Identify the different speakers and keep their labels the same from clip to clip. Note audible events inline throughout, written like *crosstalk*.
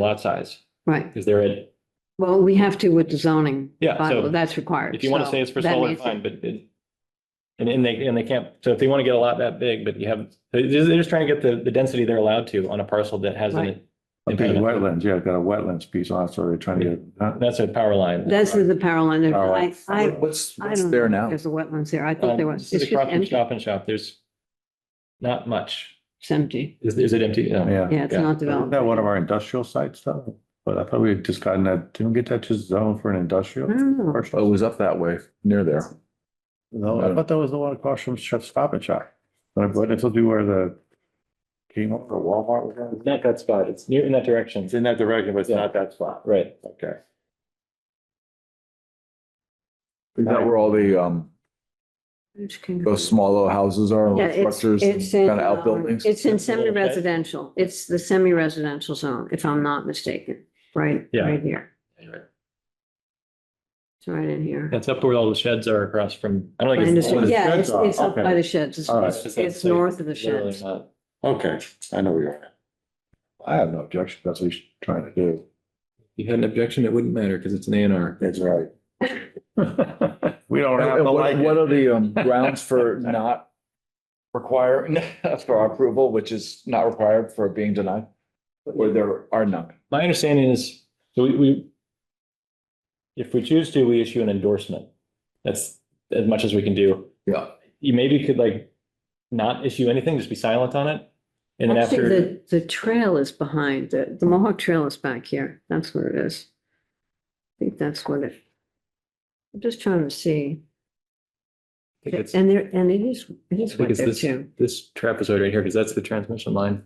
Speaker 1: lot size,
Speaker 2: Right,
Speaker 1: because they're at,
Speaker 2: well, we have to with the zoning.
Speaker 1: Yeah, so
Speaker 2: bylaw, That's required.
Speaker 1: if you want to
Speaker 2: so
Speaker 1: say it's for
Speaker 2: that
Speaker 1: solar,
Speaker 2: means-
Speaker 1: fine, but it. And, and they, and they can't, so if they want to get a lot that big, but you have, they're just, they're just trying to get the, the density they're allowed to on a parcel that has an.
Speaker 2: Right.
Speaker 3: A big wetlands, yeah, I've got a wetlands piece on, it, so they're trying to get. huh?
Speaker 1: That's a power line.
Speaker 2: That's the power line, there.
Speaker 3: Power
Speaker 2: I,
Speaker 3: line.
Speaker 2: I,
Speaker 4: What's,
Speaker 2: I
Speaker 4: what's
Speaker 2: don't
Speaker 4: there
Speaker 2: think
Speaker 4: now?
Speaker 2: there's a wetlands there, I
Speaker 1: Um,
Speaker 2: thought there was,
Speaker 1: This is
Speaker 2: it's just
Speaker 1: across from
Speaker 2: empty,
Speaker 1: Stop and Shop, there's not much.
Speaker 2: it's empty,
Speaker 1: Is, is it empty? No.
Speaker 3: Yeah.
Speaker 2: yeah, it's
Speaker 1: Yeah.
Speaker 2: not
Speaker 3: Isn't
Speaker 2: developed.
Speaker 3: that one of our industrial sites though? But I thought we had just gotten that, didn't we get that just zone for an
Speaker 2: I
Speaker 3: industrial?
Speaker 2: don't know.
Speaker 3: commercial?
Speaker 4: Oh, it was up that way, near there.
Speaker 3: No, I thought that was the one across from Chef Stop and Shop. But it's supposed to be where the King or Walmart was at.
Speaker 1: It's Not that spot, it's near in that direction.
Speaker 3: It's in that direction, but it's not that spot.
Speaker 1: Right.
Speaker 3: Okay.
Speaker 4: Is that where all the, um,
Speaker 2: It's kind of-
Speaker 4: those small little houses are,
Speaker 2: Yeah,
Speaker 4: little
Speaker 2: it's,
Speaker 4: structures,
Speaker 2: it's in,
Speaker 4: kind of
Speaker 2: um,
Speaker 4: outbuildings?
Speaker 2: it's in
Speaker 1: It's a little bit.
Speaker 2: semi-residential, it's the semi-residential zone, if I'm not mistaken, right,
Speaker 1: Yeah.
Speaker 2: right here, it's right in here.
Speaker 1: That's up where all the sheds are across from, I
Speaker 2: I
Speaker 1: don't think it's.
Speaker 2: understand,
Speaker 3: the
Speaker 2: yeah,
Speaker 3: sheds
Speaker 2: it's,
Speaker 3: are,
Speaker 2: it's up
Speaker 3: okay.
Speaker 2: by the sheds,
Speaker 3: All right.
Speaker 2: it's,
Speaker 1: It's that
Speaker 2: it's
Speaker 1: site.
Speaker 2: north of the
Speaker 1: Literally
Speaker 2: sheds.
Speaker 1: not.
Speaker 3: Okay, I know where you're at. I have no objection. That's what he's trying to do.
Speaker 5: you had an objection, it wouldn't matter because it's an A and
Speaker 3: *laughs*
Speaker 5: R.
Speaker 3: That's right. We don't have
Speaker 4: And
Speaker 3: to
Speaker 4: What
Speaker 3: like
Speaker 4: what
Speaker 3: it.
Speaker 4: are the um, grounds for not requiring, for our approval, which is not required for being denied? Or there are none?
Speaker 1: My understanding is, so we, we. If we choose to, we issue an endorsement. That's as much as we can do.
Speaker 4: Yeah.
Speaker 1: You maybe could like not issue anything, just be silent on it. And then
Speaker 2: Actually,
Speaker 1: after,
Speaker 2: the, the trail is behind, the, the Mohawk Trail is back here, that's what it is. I think that's what it. I'm just trying to see,
Speaker 5: I think it's,
Speaker 2: and there, and it is, it
Speaker 5: I
Speaker 2: is
Speaker 5: think
Speaker 2: right
Speaker 5: it's
Speaker 2: there
Speaker 5: this,
Speaker 2: too.
Speaker 5: this trapezoid right here, because that's the transmission line.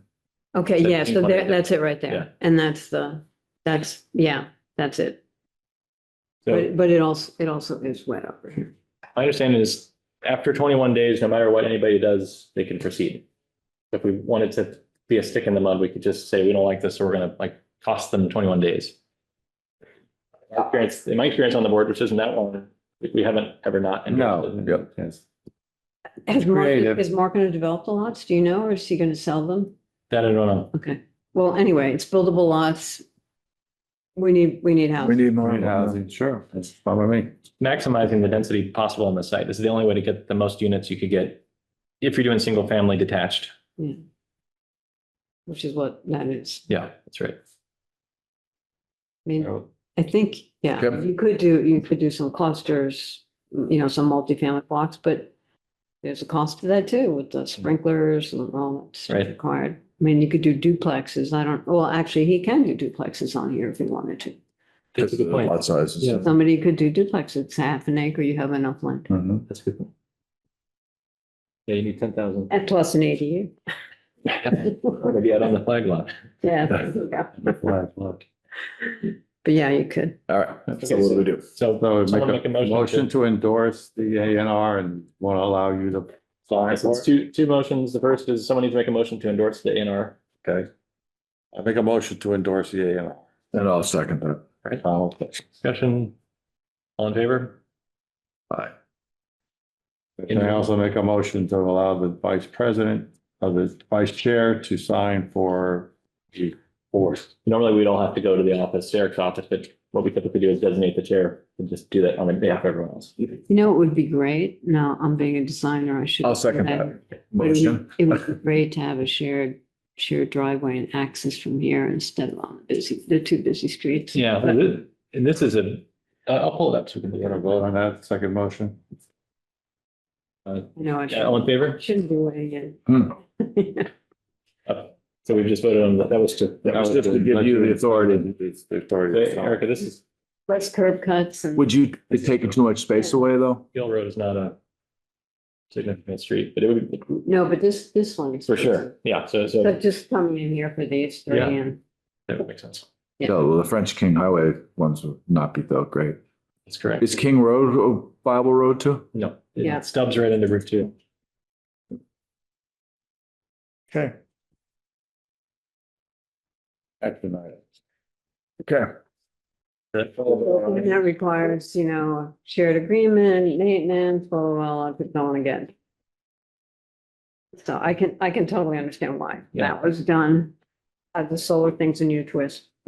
Speaker 2: Okay,
Speaker 1: that
Speaker 2: yeah,
Speaker 1: pink
Speaker 2: so
Speaker 1: one right
Speaker 2: there,
Speaker 1: there.
Speaker 2: that's it right
Speaker 1: Yeah.
Speaker 2: there, and that's the, that's, yeah, that's it.
Speaker 1: so
Speaker 2: But, but it also, it also is wet over here.
Speaker 1: my understanding is after twenty-one days, no matter what anybody does, they can proceed. If we wanted to be a stick in the mud, we could just say, we don't like this, so we're gonna like cost them twenty-one days. My Experience, in my experience on the board, which isn't that long, we- we haven't ever not. endorsed it.
Speaker 3: No, yep, yes.
Speaker 2: Has Mark,
Speaker 3: creative.
Speaker 2: is Mark gonna develop the lots, do you know, or is he gonna sell them?
Speaker 1: That um, I don't know.
Speaker 2: Okay, well, anyway, it's buildable lots. We need, we need
Speaker 4: We
Speaker 2: houses.
Speaker 4: need more.
Speaker 3: Right, housing, sure, that's fine by me.
Speaker 1: maximizing the density possible on the site. This is the only way to get the most units you could get if you're doing single family detached.
Speaker 2: Yeah. Which is what that is,
Speaker 1: Yeah, Oh, that's right.
Speaker 2: I mean, I think, yeah,
Speaker 4: Yep.
Speaker 2: you could do, you could do some clusters, you know, some multifamily blocks, but. There's a cost to that too, with
Speaker 4: Mm-hmm.
Speaker 2: the sprinklers and all that's
Speaker 1: Right.
Speaker 2: required. I mean, you could do duplexes, I don't, well, actually, he can do duplexes on here if he wanted to.
Speaker 1: That's a good point.
Speaker 4: uh, Lot sizes.
Speaker 1: Yeah.
Speaker 2: Somebody could do duplex, it's half an acre, you have enough land,
Speaker 4: Mm-hmm.
Speaker 3: Mhm.
Speaker 1: That's a good. point. Yeah, you need ten thousand.
Speaker 2: and plus an ADU.
Speaker 1: *laughs* Maybe out on the flag lot.
Speaker 2: Yeah, there you go.
Speaker 3: Flag lot.
Speaker 2: but yeah, you could.
Speaker 4: All right, so what do we do?
Speaker 1: So
Speaker 3: So
Speaker 1: Someone
Speaker 3: make a
Speaker 1: to-
Speaker 3: motion to endorse the A and R and want to allow you to apply for
Speaker 1: it's
Speaker 3: it.
Speaker 1: uh, two, two motions. The first is someone needs to make a motion to endorse the A and R.
Speaker 3: Okay. I make a motion to endorse the A and R.
Speaker 4: And I'll second that.
Speaker 3: I'll-
Speaker 1: Discussion. All in favor?
Speaker 3: And I also make a motion to allow the vice president of the vice chair to sign for the board.
Speaker 1: Normally, we don't have to go to the office, Eric's office, but what we typically do is designate the chair and just do that on behalf of everyone else.
Speaker 2: You know, it would be great, no, I'm being a designer, I should.
Speaker 4: I'll second that
Speaker 2: But it
Speaker 4: motion.
Speaker 2: would- It
Speaker 1: *laughs*
Speaker 2: would be great to have a shared, shared driveway and access from here instead of on the busy, the two busy streets.
Speaker 1: Yeah, and thi- and this is a, I- I'll pull it up so we can.
Speaker 3: You
Speaker 1: do
Speaker 3: gonna
Speaker 1: it.
Speaker 3: vote on that second motion?
Speaker 2: No, I
Speaker 1: Yeah, all in
Speaker 2: shouldn't,
Speaker 1: favor?
Speaker 2: shouldn't be weighing
Speaker 3: Hmm.
Speaker 2: in.
Speaker 1: So we've just voted on that. That was to.
Speaker 4: That was just to give you the authority.
Speaker 3: It's the authority. to sign.
Speaker 1: Erica, this is,
Speaker 2: Less curb cuts and,
Speaker 4: Would you, it's taking too much space away, though?
Speaker 1: Hill Road is not a significant street, but it would,
Speaker 2: no, but this, this one is.
Speaker 1: for sure. Yeah, so, so
Speaker 2: But just coming in here for these three
Speaker 1: Yeah.
Speaker 2: and.
Speaker 1: that would make sense.
Speaker 2: Yeah.
Speaker 4: No, well, the French King Highway ones would not be though great.
Speaker 1: That's correct.
Speaker 4: Is King Road a viable road too?
Speaker 1: No,
Speaker 2: Yeah.
Speaker 1: it stubs right into Route Two.
Speaker 4: Okay. Action item. Okay.
Speaker 2: And that requires, you know, shared agreement, maintenance, blah, blah, blah, I could go on again. So I can, I can totally understand why
Speaker 1: Yeah.
Speaker 2: that was done. Uh, the solar thing's a new twist.